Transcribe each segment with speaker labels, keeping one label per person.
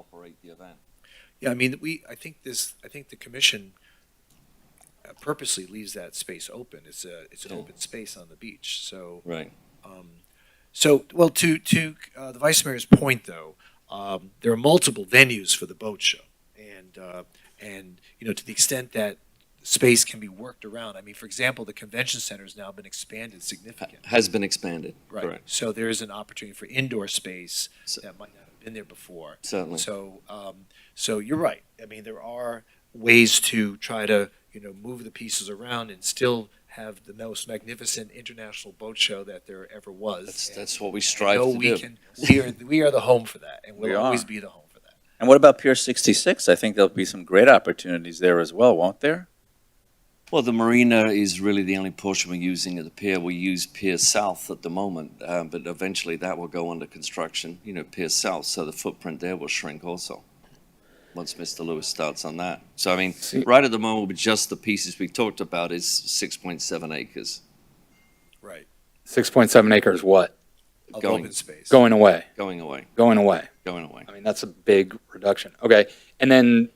Speaker 1: operate the event.
Speaker 2: Yeah, I mean, we, I think this, I think the commission uh, purposely leaves that space open. It's a, it's an
Speaker 1: Yeah.
Speaker 2: open space on the beach, so,
Speaker 1: Right.
Speaker 2: um, so, well, to, to, uh, the vice mayor's point, though, um, there are multiple venues for the boat show. And, uh, and, you know, to the extent that space can be worked around, I mean, for example, the convention center has now been expanded significantly.
Speaker 1: Has been expanded.
Speaker 2: Right,
Speaker 1: Correct.
Speaker 2: so there is an opportunity for indoor space
Speaker 1: So-
Speaker 2: that might not have been there before.
Speaker 1: Certainly.
Speaker 2: So, um, so you're right. I mean, there are ways to try to, you know, move the pieces around and still have the most magnificent international boat show that there ever was.
Speaker 1: That's,
Speaker 2: And
Speaker 1: that's what we
Speaker 2: I
Speaker 1: strive
Speaker 2: know
Speaker 1: to
Speaker 2: we
Speaker 1: do.
Speaker 2: can. We are, we are the home for that and
Speaker 3: We
Speaker 2: we'll
Speaker 3: are.
Speaker 2: always be the home for that.
Speaker 3: And what about Pier 66? I think there'll be some great opportunities there as well, won't there?
Speaker 1: Well, the marina is really the only portion we're using at the pier. We use Pier South at the moment, uh, but eventually that will go under construction, you know, Pier South, so the footprint there will shrink also, once Mr. Lewis starts on that. So, I mean, right at the moment, with just the pieces we talked about is 6.7 acres
Speaker 2: Right.
Speaker 4: 6.7 acres what?
Speaker 2: Of
Speaker 1: Going-
Speaker 2: open space.
Speaker 4: Going away,
Speaker 1: going away,
Speaker 4: going away.
Speaker 1: going away.
Speaker 4: I mean, that's a big reduction. Okay. And then,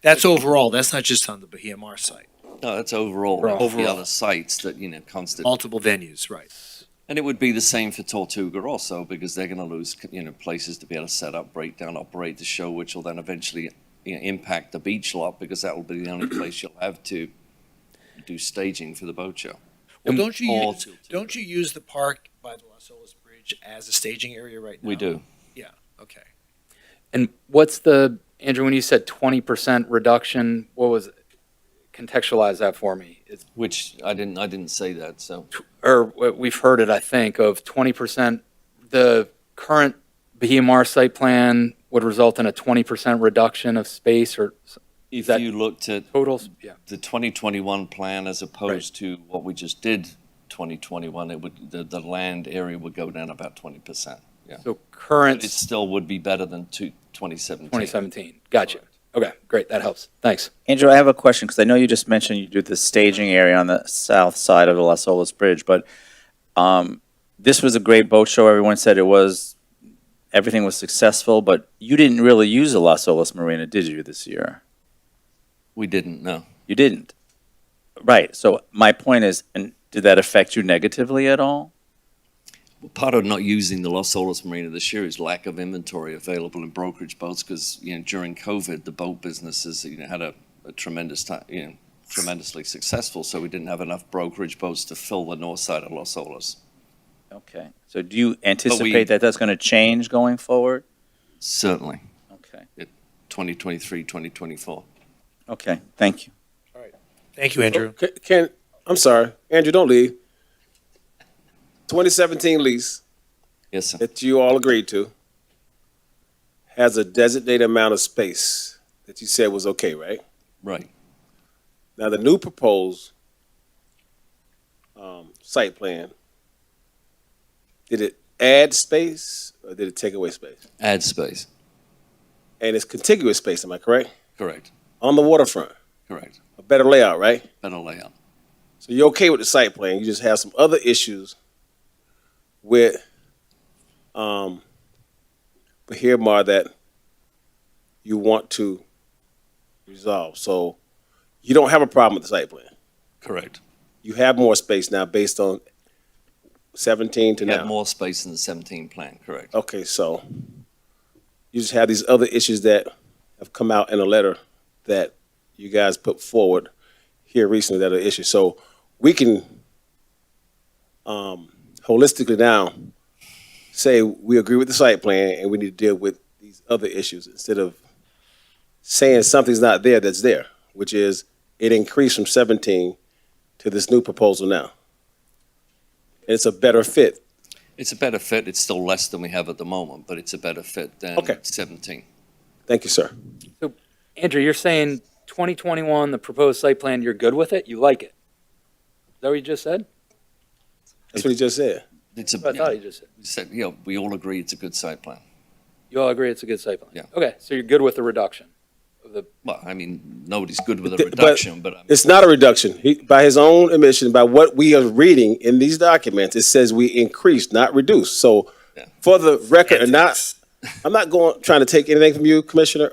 Speaker 2: That's overall. That's not just on the Bahia Mar site.
Speaker 1: No, that's overall,
Speaker 4: Right.
Speaker 1: the
Speaker 2: Overall.
Speaker 1: other sites that, you know, constant.
Speaker 2: Multiple venues, right.
Speaker 1: And it would be the same for Tortuga also, because they're going to lose, you know, places to be able to set up, break down, operate the show, which will then eventually you know, impact the beach lot, because that will be the only place you'll have to do staging for the boat show.
Speaker 2: Well,
Speaker 4: And
Speaker 2: don't you,
Speaker 1: all
Speaker 2: use-
Speaker 1: to- to-
Speaker 2: don't you use the park by the Las Olas Bridge as a staging area right now?
Speaker 1: We do.
Speaker 2: Okay.
Speaker 4: and what's the, Andrew, when you said 20% reduction, what was, contextualize that for me. It's,
Speaker 1: Which I didn't, I didn't say that, so.
Speaker 4: or what we've heard it, I think, of 20%, the current Bahia Mar site plan would result in a 20% reduction of space or s-
Speaker 1: If
Speaker 4: That-
Speaker 1: you looked at
Speaker 4: total, s- yeah.
Speaker 1: the 2021 plan as opposed to what we just did 2021, it would, the, the land area would go down about 20%.
Speaker 4: So
Speaker 1: But
Speaker 4: current
Speaker 1: it still would be better than two- 2017.
Speaker 4: 2017, gotcha. Okay, great, that helps. Thanks.
Speaker 3: Andrew, I have a question because I know you just mentioned you do the staging area on the south side of the Las Olas Bridge, but um, this was a great boat show. Everyone said it was, everything was successful, but you didn't really use the Las Olas Marina, did you, this year?
Speaker 1: We didn't, no.
Speaker 3: You didn't. Right. So my point is, and did that affect you negatively at all?
Speaker 1: part of not using the Los Olas Marina this year is lack of inventory available in brokerage boats because you know during COVID the boat businesses you know had a, a tremendous time you know tremendously successful so we didn't have enough brokerage boats to fill the north side of Los Olas.
Speaker 3: Okay. So do you anticipate that that's going to change going forward?
Speaker 1: Certainly,
Speaker 3: Okay.
Speaker 1: 2023, 2024.
Speaker 3: Okay. Thank you.
Speaker 2: Thank you, Andrew.
Speaker 5: Oh, Can, can I'm sorry, Andrew, don't leave. 2017 lease
Speaker 1: Yes, sir.
Speaker 5: that you all agreed to has a designated amount of space that you said was okay, right?
Speaker 1: Right.
Speaker 5: Now the new proposed um, site plan did it add space or did it take away space?
Speaker 1: Ad space.
Speaker 5: And it's contiguous space, am I correct?
Speaker 1: Correct.
Speaker 5: On the waterfront,
Speaker 1: Correct.
Speaker 5: a better layout, right?
Speaker 1: Better layout.
Speaker 5: So you're okay with the site plan. You just have some other issues with um but here Mar that you want to resolve. So you don't have a problem with the site plan.
Speaker 1: Correct.
Speaker 5: You have more space now based on seventeen to
Speaker 1: We had
Speaker 5: now.
Speaker 1: more space in the 17 plan. Correct.
Speaker 5: Okay, so you just have these other issues that have come out in a letter that you guys put forward here recently that are issues. So we can um, holistically now say we agree with the site plan and we need to deal with these other issues instead of saying something's not there that's there, which is it increased from 17 to this new proposal now. And it's a better fit.
Speaker 1: It's a better fit. It's still less than we have at the moment, but it's a better fit than
Speaker 5: Okay.
Speaker 1: 17.
Speaker 5: Thank you, sir.
Speaker 4: Andrew, you're saying 2021, the proposed site plan, you're good with it? You like it? Is that what you just said?
Speaker 5: That's what he just said.
Speaker 1: It's a
Speaker 4: That's what I thought you just said.
Speaker 1: We said, you know, we all agree it's a good site plan.
Speaker 4: You all agree it's a good site plan?
Speaker 1: Yeah.
Speaker 4: Okay, so you're good with the reduction?
Speaker 1: Well, I mean, nobody's good with a
Speaker 5: Th- but-
Speaker 1: reduction, but, um, I mean,
Speaker 5: It's not a reduction. He, by his own admission, by what we are reading in these documents, it says we increased, not reduced. So
Speaker 1: Yeah.
Speaker 5: for the record, and not, I'm not going, trying to take anything from you, Commissioner,